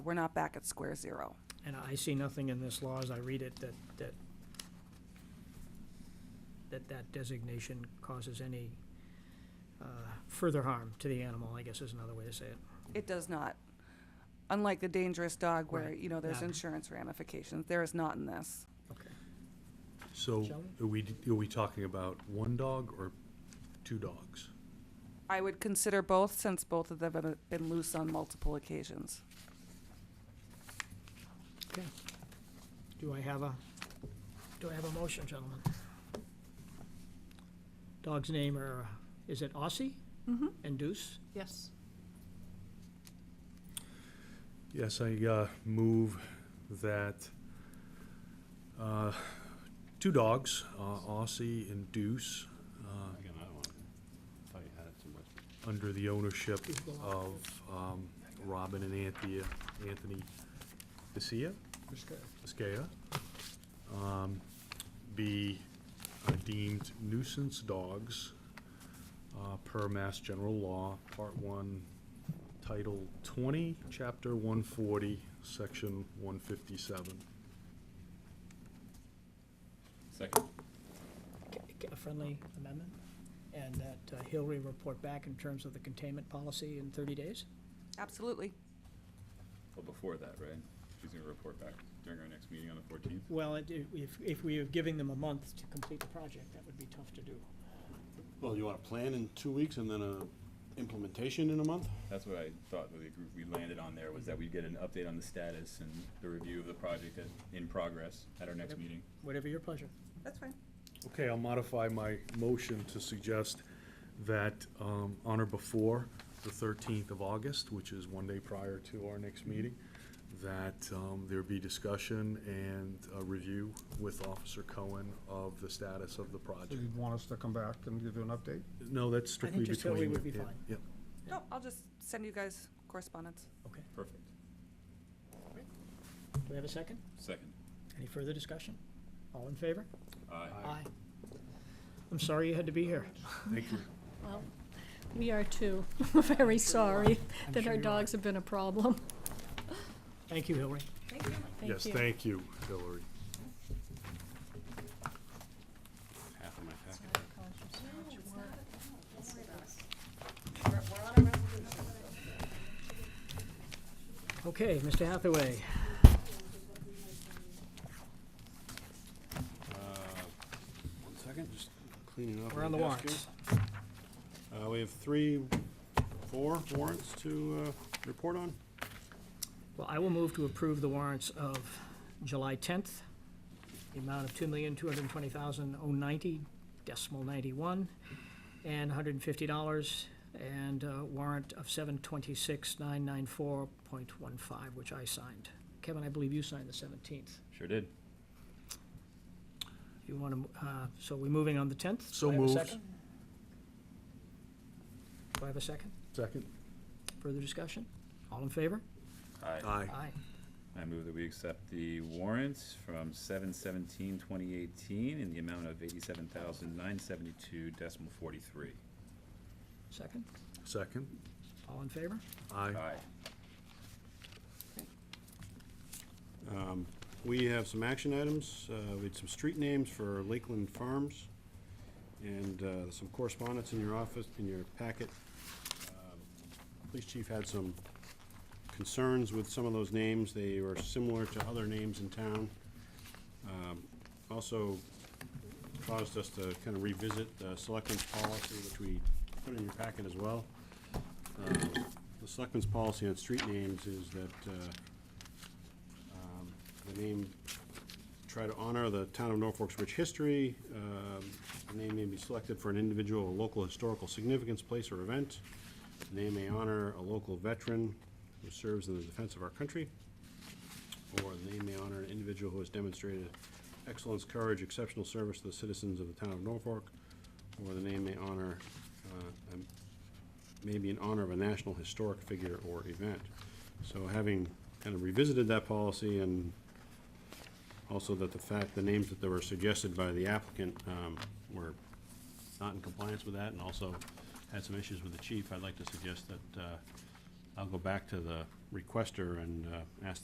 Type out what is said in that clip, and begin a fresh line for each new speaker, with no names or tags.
we're not back at square zero.
And I see nothing in this law as I read it that, that, that that designation causes any uh, further harm to the animal, I guess is another way to say it.
It does not. Unlike the dangerous dog where,
Right.
you know, there's
Yeah.
insurance ramifications, there is not in this.
Okay.
So
Shall
are we, are we talking about one dog or two dogs?
I would consider both since both of them have been loose on multiple occasions.
Okay. Do I have a, do I have a motion, gentlemen? Dog's name are, is it Aussie? Mm-hmm. And Deuce?
Yes.
Yes, I uh, move that uh, two dogs, uh, Aussie and Deuce, uh,
I got another one. Thought you had it somewhere.
under the ownership
These belong to
of um, Robin and Anthea, Anthony Biscaya, Biscaya, um, be uh, deemed nuisance dogs uh, per Mass General Law, Part One, Title Twenty, Chapter one forty, Section one fifty-seven.
Second.
a friendly amendment, and that uh, Hillary report back in terms of the containment policy in 30 days?
Absolutely.
Well, before that, right? She's gonna report back during our next meeting on the fourteenth.
Well, it- it- if, if we are giving them a month to complete the project, that would be tough to do.
Well, you want a plan in two weeks and then a implementation in a month?
That's what I thought with the group we landed on there, was that we'd get an update on the status and the review of the project at, in progress at our next
Yep.
meeting.
Whatever your pleasure.
That's fine.
Okay, I'll modify my motion to suggest that um, on or before the 13th of August, which is one day prior to our next meeting, that um, there be discussion and a review with Officer Cohen of the status of the
So
project.
you'd want us to come back and give you an update?
No, that's strictly between.
just Hillary would be
yeah,
fine.
yeah.
No, I'll just send you guys correspondence.
Okay.
Perfect.
Do we have a second?
Second.
Any further discussion? All in favor?
Aye.
Aye. I'm sorry you had to be here.
Thank you.
Well, we are too. We're very sorry
I'm
that
sure
our
you are.
dogs have been a problem.
Thank you, Hillary.
Thank
Yes,
you.
thank you, Hillary.
Half of my packet.
Okay, Mr. Hathaway,
One second, just cleaning up.
we're on the
desk
warrants.
here. Uh, we have three, four warrants to, uh, report on.
Well, I will move to approve the warrants of July 10th, the amount of $2,220,090, decimal 91, and $150, and a warrant of 726,994.15, which I signed. Kevin, I believe you signed the 17th.
Sure did.
You want to, so we're moving on the 10th?
So
Do I have a
moved.
second? Do I have a second?
Second?
Further discussion? All in favor?
Aye.
Aye.
Aye.
I move that we accept the warrants from seven seventeen twenty eighteen in the amount of eighty-seven thousand nine seventy-two decimal forty-three.
Second?
Second?
All in favor?
Aye.
Aye.
Um, we have some action items. Uh, we had some street names for Lakeland Farms and, uh, some correspondence in your office, in your packet. Um, Police chief had some concerns with some of those names. They were similar to other names in town. Um, Also caused us to kind of revisit the selectmen's policy, which we put in your packet as well. Um, The selectmen's policy on street names is that, uh, um, The name, try to honor the town of Norfolk's rich history. Um, The name may be selected for an individual or local historical significance, place, or event. The name may honor a local veteran who serves in the defense of our country. Or the name may honor an individual who has demonstrated excellence, courage, exceptional service to the citizens of the town of Norfolk. Or the name may honor, uh, a maybe in honor of a national historic figure or event. So having kind of revisited that policy and also that the fact, the names that they were suggested by the applicant um, were not in compliance with that and also had some issues with the chief, I'd like to suggest that uh, I'll go back to the requester and uh, ask